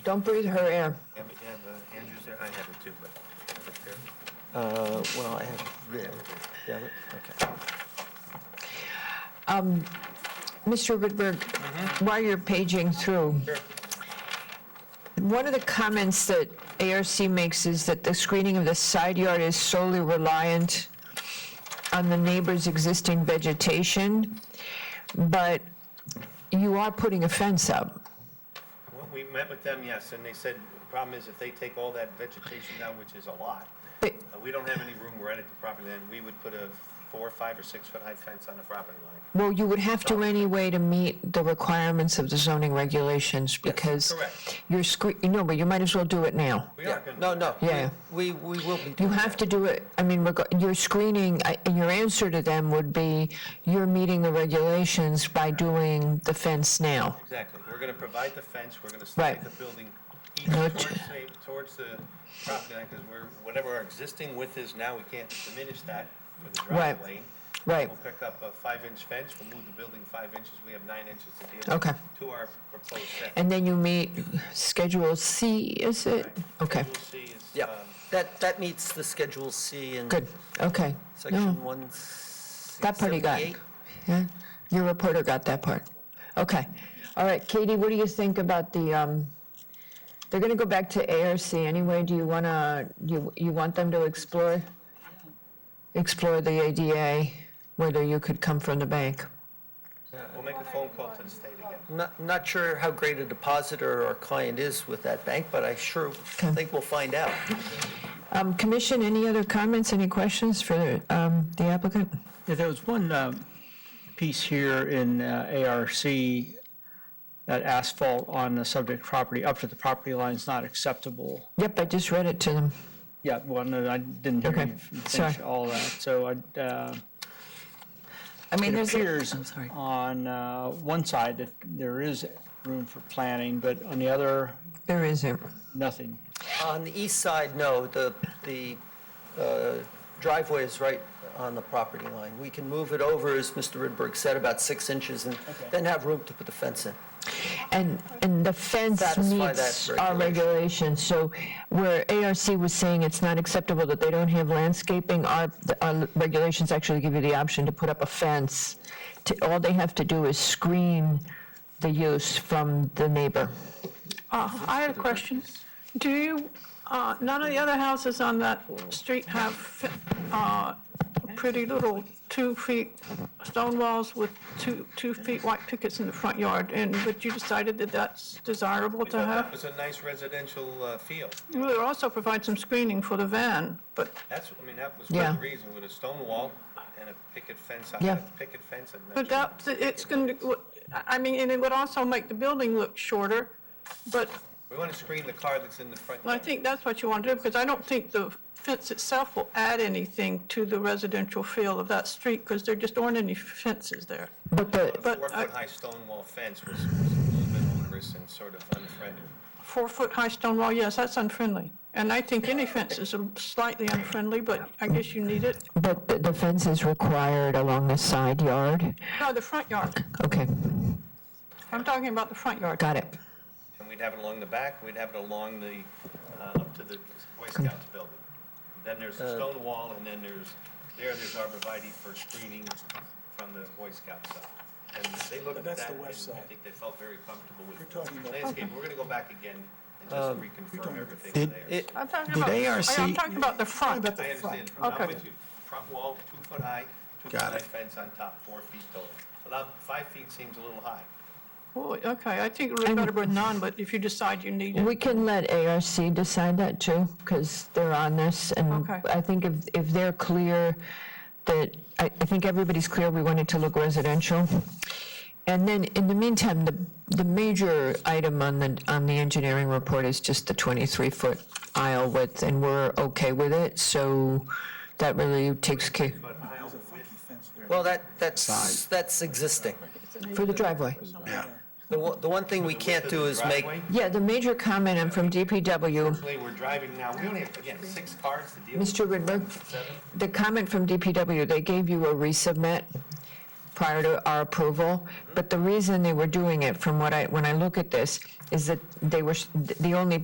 Don't breathe her air. Yeah, but you have uh, Andrews there, I have it too, but. Uh, well, I have, yeah, yeah, okay. Mr. Whitberg, while you're paging through, one of the comments that ARC makes is that the screening of the side yard is solely reliant on the neighbor's existing vegetation, but you are putting a fence up. Well, we met with them, yes, and they said, the problem is if they take all that vegetation down, which is a lot, But uh, we don't have any room where at the property, then we would put a four, five, or six-foot high fence on the property line. Well, you would have to anyway to meet the requirements of the zoning regulations because correct. you're scre, no, but you might as well do it now. We are Yeah. gonna. No, no. Yeah. We, we will be You doing have that. to do it, I mean, reg- your screening, I- and your answer to them would be, you're meeting the regulations by doing the fence now. Exactly, we're gonna provide the fence, we're gonna slide Right. the building east No towards, ch- the- towards the property line, because we're, whatever our existing width is now, we can't diminish that for the Right. drive lane. Right. We'll pick up a five-inch fence, we'll move the building five inches, we have nine inches to deal with. Okay. To our proposed setback. And then you meet Schedule C, is it? Okay, We'll see, it's, Yeah, um, that, that meets the Schedule C in good, okay. No, Section 178. That part you got. Yeah, your reporter got that part. Okay, all right, Katie, what do you think about the, um, they're gonna go back to ARC anyway, do you wanna, you, you want them to explore? Explore the ADA, whether you could come from the bank? we'll make a phone call to the state again. Not, not sure how great a depositor our client is with that bank, but I sure Okay. think we'll find out. Um, Commission, any other comments, any questions for um, the applicant? Yeah, there was one uh, piece here in uh, ARC that asphalt on the subject property up to the property line is not acceptable. Yep, I just read it to them. Yeah, well, no, I didn't hear Okay, you finish sorry. all that. So I, uh, I mean, it there's, a- appears I'm sorry. on uh, one side that there is room for planning, but on the other, There isn't. nothing. On the east side, no, the, the uh, driveway is right on the property line. We can move it over, as Mr. Ridberg said, about six inches, and then have room to put the fence in. And, and the fence Satisfy that meets our regulation. regulations, so where ARC was saying it's not acceptable that they don't have landscaping, our, our regulations actually give you the option to put up a fence. To- All they have to do is screen the use from the neighbor. Uh, I had a question. Do you, uh, none of the other houses on that street have uh, pretty little two-feet stone walls with two, two feet white pickets in the front yard, and, but you decided that that's desirable We to thought that have? was a nice residential uh, feel. You would also provide some screening for the van, but That's, I mean, that was one of Yeah. the reasons, with a stone wall and a picket fence, I Yeah. had picket fence. and But that, it's going to, I mean, and it would also make the building look shorter, but We want to screen the car that's in the front. I yard. think that's what you want to do, because I don't think the fence itself will add anything to the residential feel of that street, because there just aren't any fences there. But the, but I- Four-foot-high stone wall fence was was a little bit onerous and sort of unfriendly. Four-foot-high stone wall, yes, that's unfriendly. And I think any fence is slightly unfriendly, but I guess you need it. but the- the fence is required along the side yard? No, the front yard. Okay, I'm talking about the front yard. got it. And we'd have it along the back, we'd have it along the, uh, up to the Boy Scouts building. Then there's Uh, a stone wall, and then there's, there, there's arborvitae for screening from the Boy Scout side. And they looked at That's that, the and I west side. think they felt very comfortable with talking the about- Um, landscape. We're gonna go back again and just reconfirm everything Did- there. it- I'm talking about, I- I'm talking about the front. I understand, I'm Okay. with you. Front wall, two foot high, two foot high fence on top, four feet tall. About five feet seems a little high. Well, Okay, I think we're better with none, but if you decide you need it. We can let ARC decide that too, because they're on this, and Okay. I think if, if they're clear that, I, I think everybody's clear, we want it to look residential. And then, in the meantime, the, the major item on the, on the engineering report is just the 23-foot aisle width, and we're okay with it, so that really takes care, Well, that, that's, that's existing. for the driveway. The one, the one thing we can't do is make, Driveway, Yeah, the major comment I'm from DPW, Actually, we're driving now, we only have, again, six cars to deal with. Mr. Ridberg, the comment from DPW, they gave you a resubmit prior to our approval, but the reason they were doing it, from what I, when I look at this, is that they were, s- the only